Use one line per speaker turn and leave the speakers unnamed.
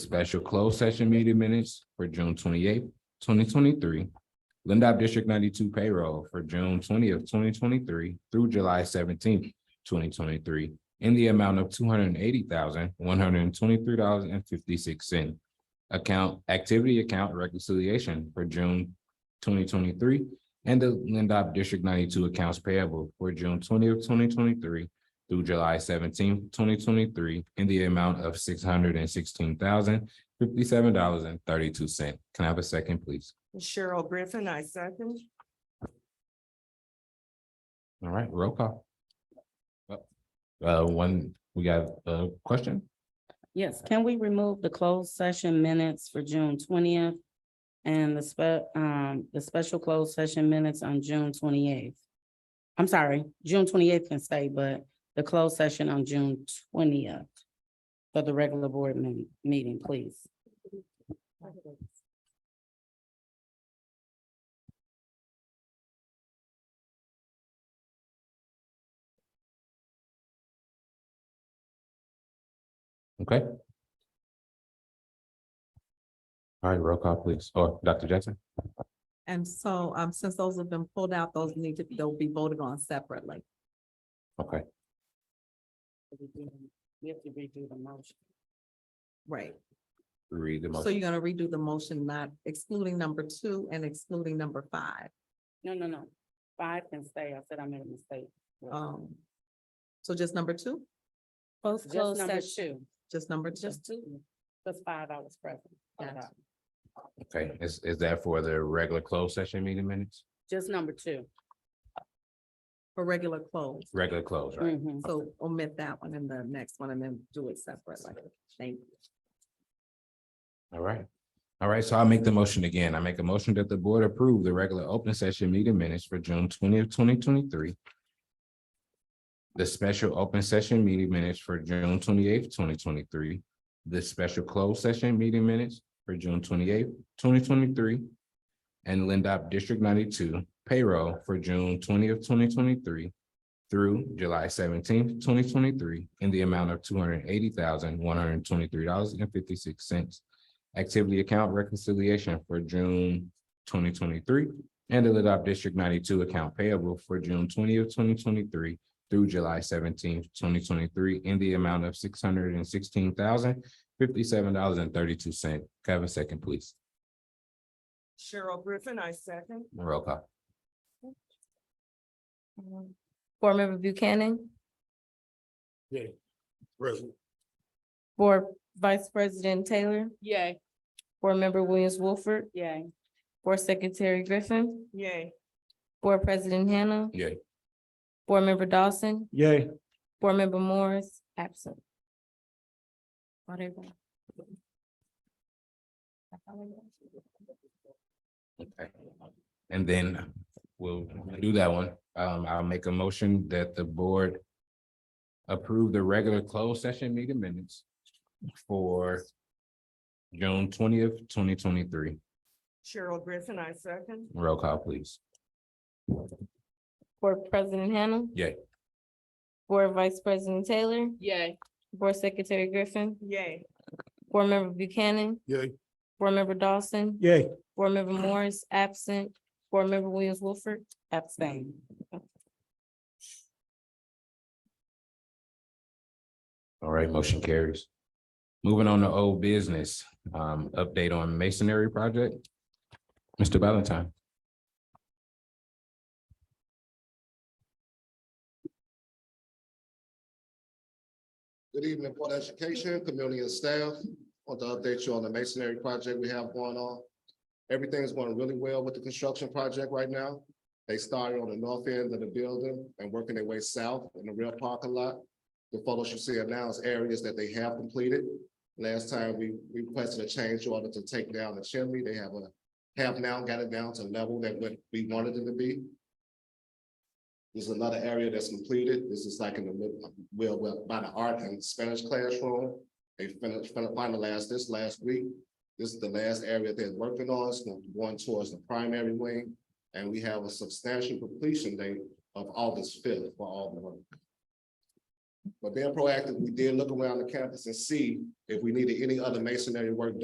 special closed session meeting minutes for June twenty-eighth, twenty twenty-three. Lindop District ninety-two payroll for June twentieth, twenty twenty-three through July seventeenth, twenty twenty-three in the amount of two hundred and eighty thousand, one hundred and twenty-three dollars and fifty-six cent. Account, activity account reconciliation for June twenty twenty-three and the Lindop District ninety-two accounts payable for June twentieth, twenty twenty-three through July seventeenth, twenty twenty-three in the amount of six hundred and sixteen thousand, fifty-seven dollars and thirty-two cent. Can I have a second, please?
Cheryl Griffin, I second.
All right, roll call. Uh, one, we got a question?
Yes, can we remove the closed session minutes for June twentieth? And the spe- um, the special closed session minutes on June twenty-eighth? I'm sorry, June twenty-eighth can stay, but the closed session on June twentieth. For the regular board me- meeting, please.
Okay. All right, roll call, please. Or Dr. Jackson?
And so, um, since those have been pulled out, those need to, they'll be voted on separately.
Okay,
We have to redo the motion.
Right.
read the
So
motion.
you're gonna redo the motion, not excluding number two and excluding number five.
No, no, no, five can stay, I said I made a mistake.
Um, so just number two,
Both
Just
closed
number
session,
two,
just number two.
just two, just five I was present.
Gotcha.
Okay, is, is that for the regular closed session meeting minutes?
Just number two.
for regular close.
Regular close, right?
Mhm.
So omit that one and the next one and then do it separately. Thank you.
All right. All right, so I'll make the motion again. I make a motion that the board approve the regular open session meeting minutes for June twentieth, twenty twenty-three. The special open session meeting minutes for June twenty-eighth, twenty twenty-three. The special closed session meeting minutes for June twenty-eighth, twenty twenty-three. And Lindop District ninety-two payroll for June twentieth, twenty twenty-three through July seventeenth, twenty twenty-three in the amount of two hundred and eighty thousand, one hundred and twenty-three dollars and fifty-six cents activity account reconciliation for June twenty twenty-three and the Ladop District ninety-two account payable for June twentieth, twenty twenty-three through July seventeenth, twenty twenty-three in the amount of six hundred and sixteen thousand fifty-seven dollars and thirty-two cent. Can I have a second, please?
Cheryl Griffin, I second.
Roll call.
Board Member Buchanan,
Yeah. Present.
Board Vice President Taylor,
Yay.
Board Member Williams Wolford,
Yay.
Board Secretary Griffin,
Yay.
Board President Hannah,
Yay.
Board Member Dawson,
Yay.
Board Member Morris, absent. Are they gone?
Okay. And then we'll do that one. Um, I'll make a motion that the board approve the regular closed session meeting minutes for June twentieth, twenty twenty-three.
Cheryl Griffin, I second.
Roll call, please.
Board President Hannah.
Yay.
Board Vice President Taylor,
Yay.
Board Secretary Griffin,
Yay.
Board Member Buchanan,
Yay.
Board Member Dawson,
Yay.
Board Member Morris, absent, Board Member Williams Wolford, abstain.
All right, motion carries. Moving on to old business, um, update on masonry project. Mr. Valentine.
Good evening, Board of Education, community and staff. Want to update you on the masonry project we have going on. Everything's going really well with the construction project right now. They started on the north end of the building and working their way south in the real parking lot. The photos you see are now is areas that they have completed. Last time we requested a change order to take down the chimney. They have a, have now got it down to level that what we wanted it to be. There's another area that's completed. This is like in the mid, well, well, by the art and Spanish classroom. They finished, finalized this last week. This is the last area they're working on, it's going towards the primary wing. And we have a substantial completion date of August fifth for all the work. But being proactive, we did look around the campus and see if we needed any other masonry work done.